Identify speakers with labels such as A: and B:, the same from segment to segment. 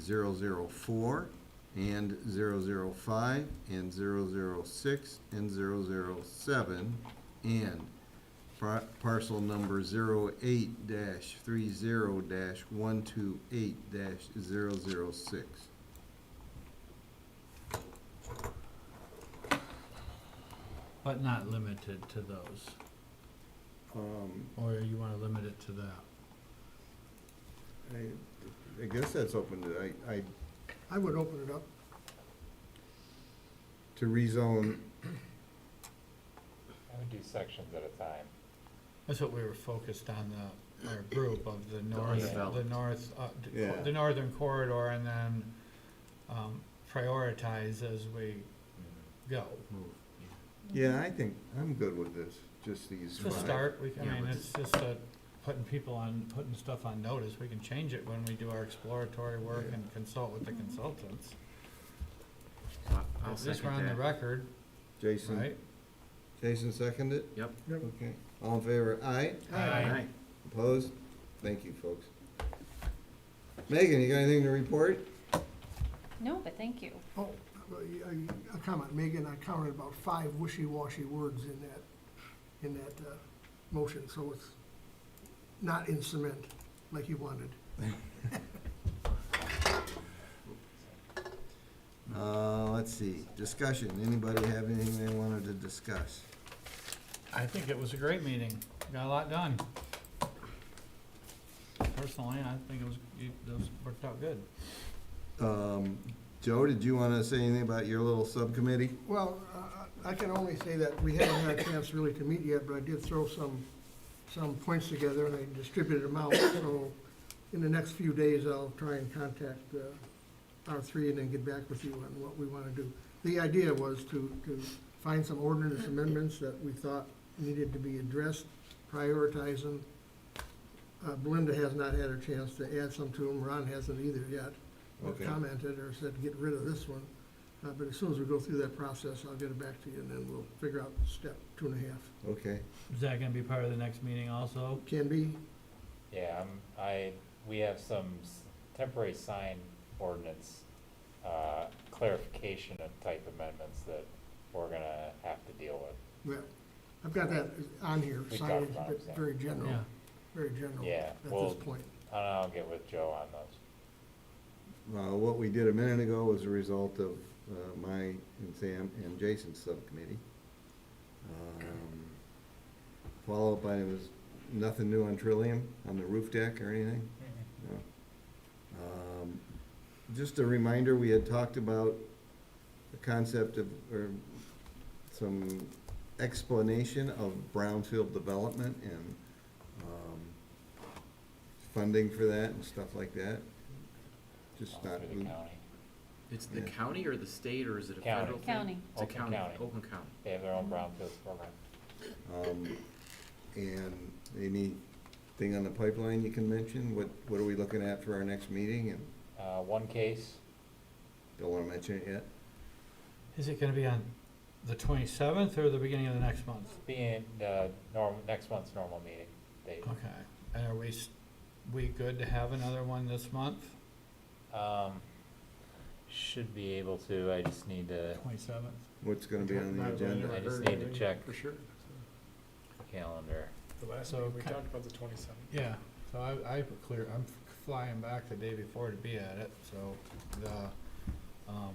A: 08-19-351-004 and 005 and 006 and 007 and par- parcel number 08-30-128-006.
B: But not limited to those,
A: Um,
B: or you wanna limit it to that?
A: I, I guess that's open to, I, I,
C: I would open it up.
A: to rezone,
D: I would do sections at a time.
B: That's what we were focused on, the, our group of the north, the
E: undeveloped.
B: north, uh, d- cor-
A: Yeah.
B: the northern corridor, and then, um, prioritize as we go.
A: yeah, I think, I'm good with this, just these
B: It's
A: five.
B: a start, we, I
E: Yeah,
B: mean,
E: let's-
B: it's just a, putting people on, putting stuff on notice, we can change it when we do our exploratory work
A: Yeah.
B: and consult with the consultants.
E: So I- I'll
B: At least we're
E: second
B: on the
E: that.
B: record,
A: Jason,
B: right?
A: Jason seconded it?
E: Yep.
C: Yep.
A: Okay, all in favor, aye?
E: Aye.
A: Opposed? Thank you, folks. Megan, you got anything to report?
F: No, but thank you.
C: Oh, a- a, a comment, Megan, I counted about five wishy-washy words in that, in that, uh, motion, so it's not in cement like you wanted.
A: Uh, let's see, discussion, anybody have anything they wanted to discuss?
B: I think it was a great meeting, got a lot done. Personally, I think it was, it, those worked out good.
A: Um, Joe, did you wanna say anything about your little subcommittee?
C: Well, uh, I- I I can only say that we haven't had a chance really to meet yet, but I did throw some, some points together and I distributed them out. So in the next few days, I'll try and contact uh, our three and then get back with you on what we want to do. The idea was to, to find some ordinance amendments that we thought needed to be addressed, prioritize them. Uh, Belinda has not had a chance to add some to them. Ron hasn't either yet. or
A: Okay.
C: Commented or said, get rid of this one. Uh, But as soon as we go through that process, I'll get it back to you, and then we'll figure out step two and a half.
A: Okay,
B: Is that gonna be part of the next meeting also?
C: Can be,
D: Yeah, i I, we have some s- temporary sign ordinance, uh, clarification and type amendments that we're gonna have to deal with.
C: well, I've got that on here,
D: We talked
C: signage,
D: about it,
C: but
D: yeah.
C: very general,
B: Yeah.
C: very general
D: Yeah,
C: at this
D: well-
C: point.
D: I don't know, I'll get with Joe on those.
A: uh, what we did a minute ago was a result of, uh, my and Sam and Jason's subcommittee. Um, Followed by, it was nothing new on Trillium, on the roof deck or anything? No. Um, Just a reminder, we had talked about the concept of, or some explanation of brownfield development and um, funding for that and stuff like that. Just
D: All
A: not, um,
D: Through the county.
E: It's the
A: Yeah.
E: county or the state, or is it a
D: County.
E: federal thing?
F: County.
E: It's a
D: Oakland
E: county,
D: County.
E: Oakland County.
D: They have their own brownfield program.
A: um, and anything on the pipeline you can mention? What, what are we looking at for our next meeting? And
D: Uh, one case,
A: don't want to mention it yet?
B: Is it gonna be on the twenty-seventh or the beginning of the next month?
D: being, uh, norm, next month's normal meeting date.
B: Okay, and are we, s- we good to have another one this month?
D: Um, should be able to, I just need to,
B: Twenty-seventh.
A: What's going to be on the agenda?
D: I just need to check. For
G: sure.
D: calendar.
G: The last
B: So
G: meeting, we
B: kind-
G: talked about the twenty-seventh.
B: Yeah, so I, I put clear, I'm flying back the day before to be at it, so the, um,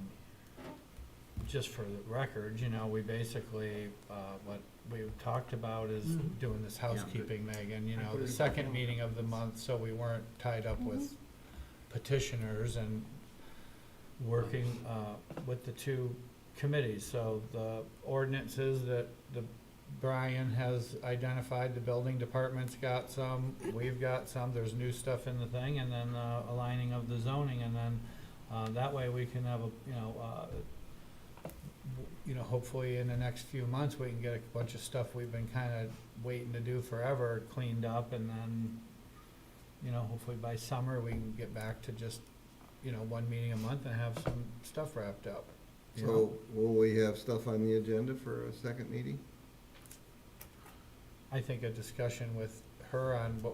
B: just for the record, you know, we basically, uh, what we've talked about is
C: Mhm.
B: doing this
E: I'm good.
B: housekeeping, Megan, you
C: I
B: know,
C: put it
B: the
C: in the
B: second
C: calendar.
B: meeting of the month, so we weren't tied up with petitioners and working, uh, with the two committees, so the ordinances that the Brian has identified, the building department's got some, we've got some, there's new stuff in the thing, and then, uh, aligning of the zoning, and then, uh, that way we can have a, you know, uh, w- you know, hopefully in the next few months, we can get a bunch of stuff we've been kinda waiting to do forever cleaned up, and then, you know, hopefully by summer, we can get back to just, you know, one meeting a month and have some stuff wrapped up. you know?
A: So will we have stuff on the agenda for a second meeting?
B: I think a discussion with her on what